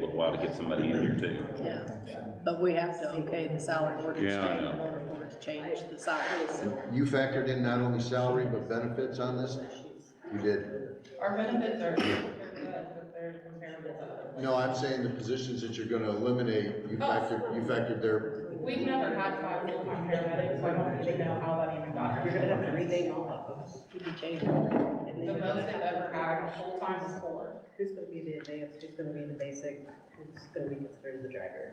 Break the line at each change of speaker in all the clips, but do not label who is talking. to get some money in here too.
Yeah, but we have to okay the salary ordinance
Yeah, I
change in
know.
order for it to change the salaries.
You factored in not only salary, but benefits on this? You did.
Our benefits are, but they're comparable to others.
No, I'm saying the positions that you're gonna eliminate,
Oh,
you factored, you factored their,
We've never had five full-time paramedics, so I don't really know how that even got here.
gonna have to rename all of us.
Could be changed. And
The
then-
most they've ever had full-time is four.
Who's gonna be the advanced, who's gonna be the basic, who's gonna be considered the driver?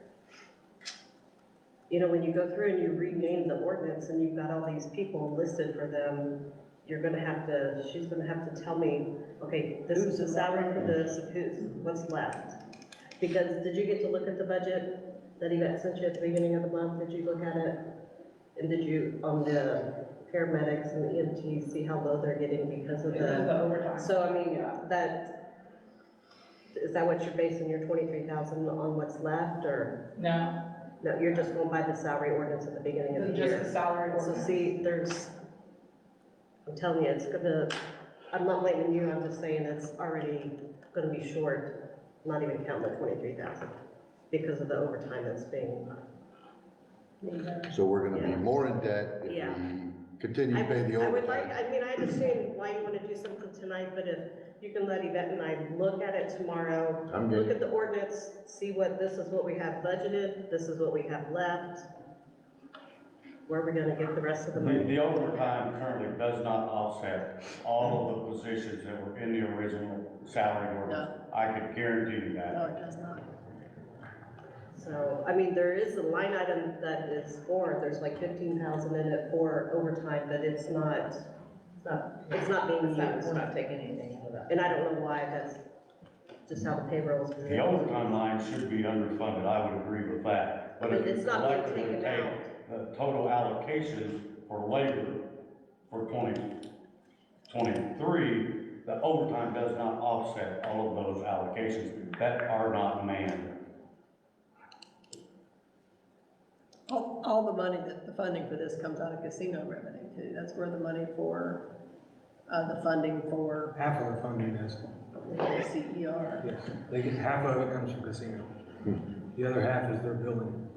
You know, when you go through and you rename the ordinance and you've got all these people listed for them, you're gonna have to, she's gonna have to tell me, okay, this is the salary for this, who's, what's left? Because did you get to look at the budget that he got sent you at the beginning of the month? Did you look at it? And did you, on the paramedics and the EMTs, see how low they're getting because of
This
the?
is the overtime.
So I mean, uh,
Yeah.
that, is that what you're basing your twenty-three thousand on what's left, or,
No,
no, you're just going by the salary ordinance at the beginning of the
just the
year?
salary
So
ordinance.
see, there's, I'm telling you, it's gonna, I'm not blaming you, I'm just saying it's already gonna be short, not even counting the twenty-three thousand, because of the overtime that's being,
so we're gonna be more in debt if
Yeah.
we continue
I
to pay the
I would like,
overtime.
I mean, I understand why you wanna do something tonight, but if you can let Yvette and I look at it tomorrow,
I'm
look
good,
at the ordinance, see what, this is what we have budgeted, this is what we have left. Where are we gonna get the rest of the
The,
money?
the overtime currently does not offset all of the positions that were in the original salary ordinance. I can guarantee you
No,
that.
it does not.
So, I mean, there is a line item that is for, there's like fifteen thousand in it for overtime, but it's not, it's not, it's not being
It's not-
used.
taking anything out of that.
And I don't know why, that's just how the payroll is.
The overtime line should be underfunded, I would agree with that. But if
But it's
you
not being
collectively
taken
take
out.
the total allocations for labor for twenty twenty-three, the overtime does not offset all of those allocations that are not manned.
All, all the money, that the funding for this comes out of casino revenue too. That's where the money for, uh, the funding for
Half of the funding is,
the E CER.
yes, they get, half of it comes from casino. The other half is their building.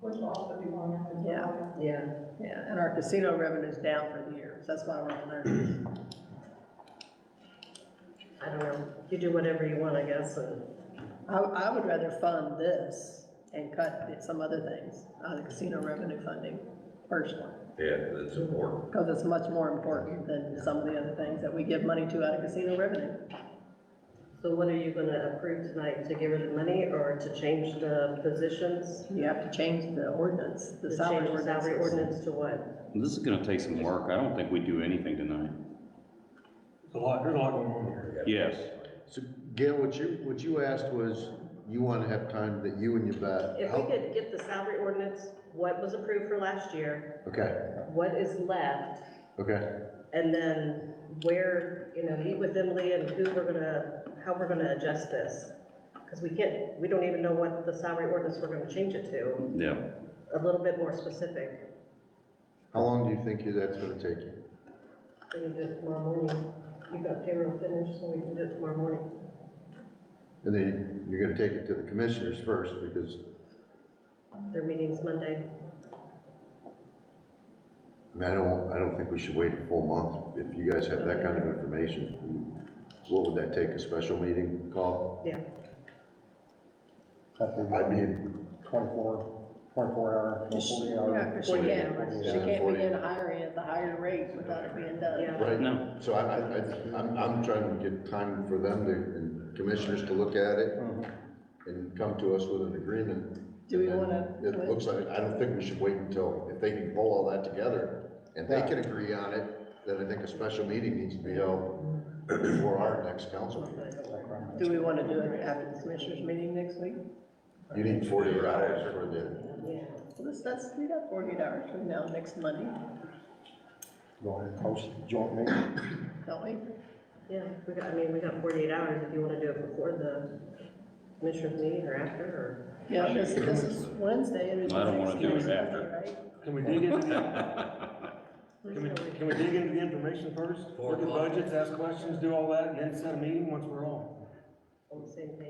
Which will also be one of them.
Yeah.
Yeah,
Yeah, and our casino revenue's down for the year, so that's why we're on there.
I don't know, you do whatever you want, I guess, and
I, I would rather fund this and cut it- some other things out of the casino revenue funding personally.
Yeah, that's important.
Because it's much more important than some of the other things that we give money to out of casino revenue.
so what are you gonna approve tonight, to give her the money or to change the positions?
You have to change the ordinance, the
The
salary
salary
ordinance.
salary ordinance to what?
This is gonna take some work. I don't think we do anything tonight.
There's a lot, there's a lot going on here.
Yes.
so Gail, what you, what you asked was, you wanna have time that you and your
If we could get the salary ordinance, what was approved for last year,
Okay,
what is left,
okay,
and then where, you know, meet with Emily and who we're gonna, how we're gonna adjust this. Because we can't, we don't even know what the salary ordinance we're gonna change it to,
Yeah.
a little bit more specific.
how long do you think you- that's gonna take you?
We can do it tomorrow morning. You got payroll finished, so we can do it tomorrow morning.
And then you're gonna take it to the commissioners first, because,
Their meeting's Monday.
I mean, I don't, I don't think we should wait a full month. If you guys have that kind of information, what would that take, a special meeting call? I mean,
twenty-four, twenty-four hour, forty
Yeah,
hour.
because she can't, she can't
Forty.
begin hiring at the higher rate without it being done.
Yeah.
right,
No.
so I, I, I- I'm, I'm trying to get time for them to, and commissioners to look at it
Mm-hmm.
and come to us with an agreement.
Do we
And then
wanna-
It looks like, I don't think we should wait until, if they can pull all that together and they can agree on it, then I think a special meeting needs to be held before our next council meeting.
Do we want to do it after the commissioners meeting next week?
You need forty-eight hours for the,
Well, let's, let's do that forty-eight hours from now, next Monday,
Go ahead and post the joint meeting.
don't we?
Yeah, we got, I mean, we got forty-eight hours if you wanna do it before the commissioners meeting or after, or.
Yeah, this, this is Wednesday. and it's
I don't wanna do it
16,
after.
right?
Can we dig into the, can we, can we dig into the information first? Look at budgets, ask questions, do all that, and then set a meeting once we're all.
On the same page.